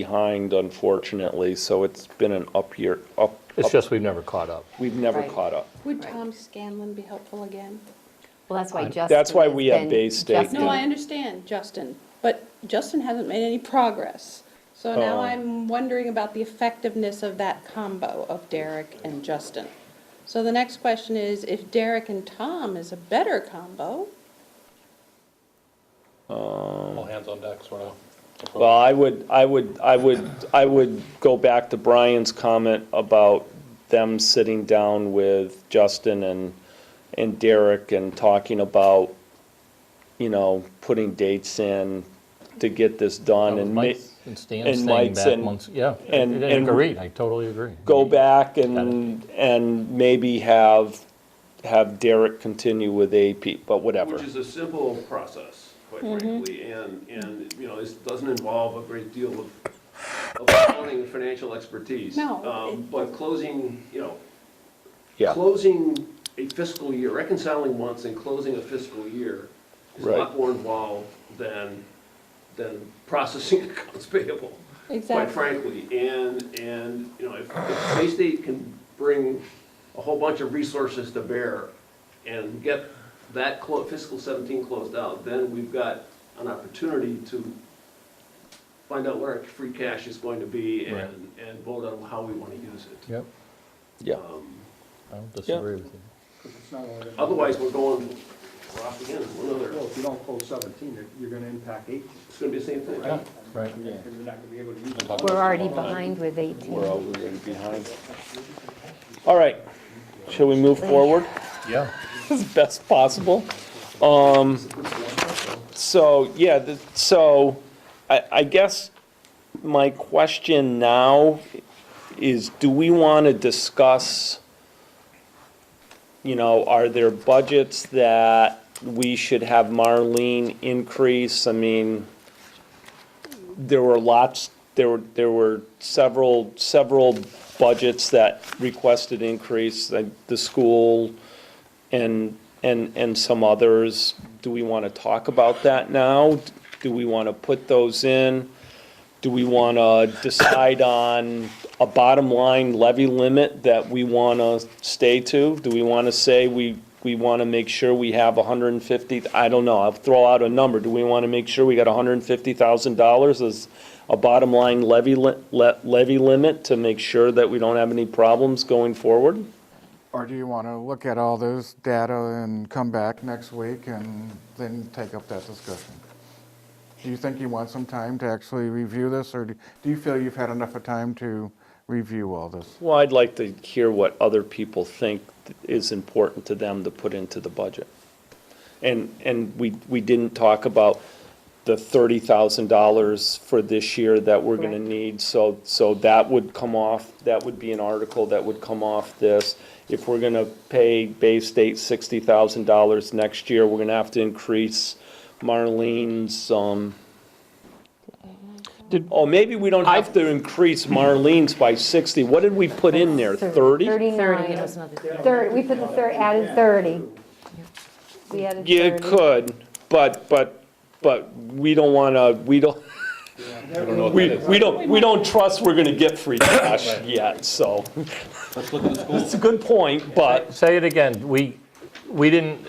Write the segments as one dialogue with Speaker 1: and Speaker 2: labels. Speaker 1: behind unfortunately, so it's been an up year, up.
Speaker 2: It's
Speaker 1: up-
Speaker 2: just we've never caught up.
Speaker 1: We've never
Speaker 3: Right.
Speaker 1: caught up.
Speaker 4: Would
Speaker 3: Right.
Speaker 4: Tom Scanlon be helpful again?
Speaker 3: Well, that's why Justin.
Speaker 1: That's why
Speaker 3: has
Speaker 1: we have
Speaker 3: been-
Speaker 1: Bay State
Speaker 3: Justin-
Speaker 4: No, I understand, Justin, but Justin hasn't made any progress. So now
Speaker 1: Oh.
Speaker 4: I'm wondering about the effectiveness of that combo of Derek and Justin. So the next question is, if Derek and Tom is a better combo,
Speaker 5: All hands on deck sort of.
Speaker 1: Well, I would, I would, I would, I would go back to Brian's comment about them sitting down with Justin and, and Derek and talking about, you know, putting dates in to get this done and ma-
Speaker 2: Mike's and Stan's
Speaker 1: and
Speaker 2: thing
Speaker 1: Mike's
Speaker 2: back
Speaker 1: and-
Speaker 2: months, yeah. I-
Speaker 1: and-
Speaker 2: I
Speaker 1: and-
Speaker 2: Agree, I totally agree.
Speaker 1: go back and, and maybe have, have Derek continue with AP, but whatever.
Speaker 6: Which is a simple process, quite frankly, and, and, you know, this doesn't involve a great deal of, of accounting and financial expertise.
Speaker 4: No,
Speaker 6: Um,
Speaker 4: it-
Speaker 6: But closing, you know,
Speaker 1: Yeah.
Speaker 6: closing a fiscal year, reconciling once and closing a fiscal year is a
Speaker 1: Right.
Speaker 6: lot more involved than, than processing accounts payable, quite
Speaker 4: Exactly.
Speaker 6: frankly. And, and, you know, if, if Bay State can bring a whole bunch of resources to bear and get that clo- fiscal seventeen closed out, then we've got an opportunity to find out what our free cash is going to be
Speaker 2: Right.
Speaker 6: and, and vote on how we want to use it.
Speaker 2: Yep,
Speaker 1: Yeah,
Speaker 2: I don't disagree with you.
Speaker 7: It's not only that.
Speaker 6: Otherwise, we're going, we're off again, we're another,
Speaker 7: Well, if you don't close seventeen, it- you're gonna impact eighteen.
Speaker 6: it's gonna be the same thing.
Speaker 2: Right.
Speaker 7: And you're not gonna be able to use it.
Speaker 3: We're already behind with 18.
Speaker 1: we're already behind. All right, shall we move forward?
Speaker 2: Yeah,
Speaker 1: as best possible. Um, so, yeah, the- so I, I guess my question now is, do we want to discuss, you know, are there budgets that we should have Marlene increase? I mean, there were lots, there were, there were several, several budgets that requested increase, like the school, and, and, and some others. Do we want to talk about that now? Do we want to put those in? Do we want to decide on a bottom line levy limit that we want to stay to? Do we want to say we, we want to make sure we have hundred and fifty, I don't know, I'll throw out a number. Do we want to make sure we got hundred and fifty thousand dollars as a bottom line levy, li- le- levy limit to make sure that we don't have any problems going forward?
Speaker 8: Or do you want to look at all those data and come back next week and then take up that discussion? Do you think you want some time to actually review this, or do do you feel you've had enough of time to review all this?
Speaker 1: Well, I'd like to hear what other people think is important to them to put into the budget. And, and we, we didn't talk about the thirty thousand dollars for this year that we're gonna
Speaker 3: Correct.
Speaker 1: need, so, so that would come off, that would be an article that would come off this. If we're gonna pay Bay State sixty thousand dollars next year, we're gonna have to increase Marlene's, um,
Speaker 2: Did-
Speaker 1: oh, maybe we don't have to increase Marlene's by sixty, what did we put in there, thirty?
Speaker 3: 30, that
Speaker 4: 39.
Speaker 3: was another.
Speaker 7: Thirty.
Speaker 3: we put the third, added 30. We added 30.
Speaker 1: You could, but, but, but we don't wanna, we don't,
Speaker 5: I don't know what
Speaker 1: we,
Speaker 5: that is.
Speaker 1: we don't, we don't trust we're gonna get free cash yet, so.
Speaker 5: Let's look at the school.
Speaker 1: It's a good point, but,
Speaker 2: say it again, we, we didn't,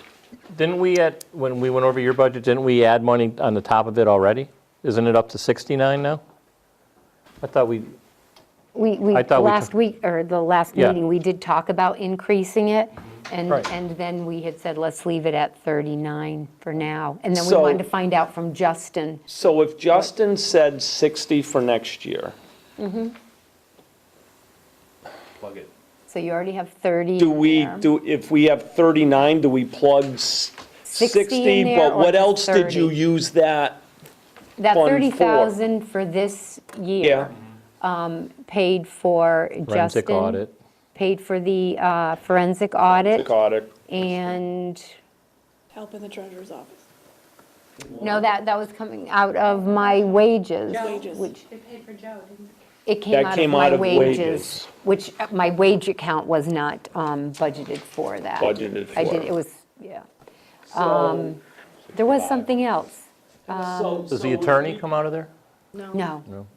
Speaker 2: didn't we at, when we went over your budget, didn't we add money on the top of it already? Isn't it up to 69 now? I thought we,
Speaker 3: We, we,
Speaker 2: I thought we
Speaker 3: last
Speaker 2: took-
Speaker 3: week, or the last
Speaker 2: Yeah.
Speaker 3: meeting, we did talk about increasing it, and,
Speaker 2: Right.
Speaker 3: and then we had said, let's leave it at 39 for now. And then we
Speaker 1: So-
Speaker 3: wanted to find out from Justin.
Speaker 1: so if Justin said sixty for next year,
Speaker 6: Plug it.
Speaker 3: So you already have 30
Speaker 1: do
Speaker 3: in
Speaker 1: we,
Speaker 3: there.
Speaker 1: do, if we have thirty-nine, do we plug s-
Speaker 3: 60 in
Speaker 1: sixty?
Speaker 3: there
Speaker 1: But
Speaker 3: or
Speaker 1: what
Speaker 3: just
Speaker 1: else did you
Speaker 3: 30?
Speaker 1: use that?
Speaker 3: That
Speaker 1: fund for-
Speaker 3: 30,000 for this
Speaker 1: Yeah,
Speaker 3: year paid for Justin.
Speaker 2: forensic audit.
Speaker 3: Paid for the uh, forensic audit,
Speaker 1: got it.
Speaker 3: and,
Speaker 4: help in the treasurer's office.
Speaker 3: no, that, that was coming out of my wages.
Speaker 4: Wages.
Speaker 3: Which,
Speaker 4: They paid for Joe, didn't
Speaker 3: It
Speaker 1: That
Speaker 3: came out of
Speaker 1: came out
Speaker 3: my
Speaker 1: of
Speaker 3: wages,
Speaker 1: wages.
Speaker 3: which uh, my wage account was not um, budgeted for that.
Speaker 1: Budgeted
Speaker 3: I
Speaker 1: for.
Speaker 3: did, it was, yeah.
Speaker 6: So,
Speaker 3: There was something else.
Speaker 6: so-
Speaker 2: Does
Speaker 6: so
Speaker 2: the
Speaker 6: if
Speaker 2: attorney
Speaker 6: we-
Speaker 2: come out of there?
Speaker 3: No.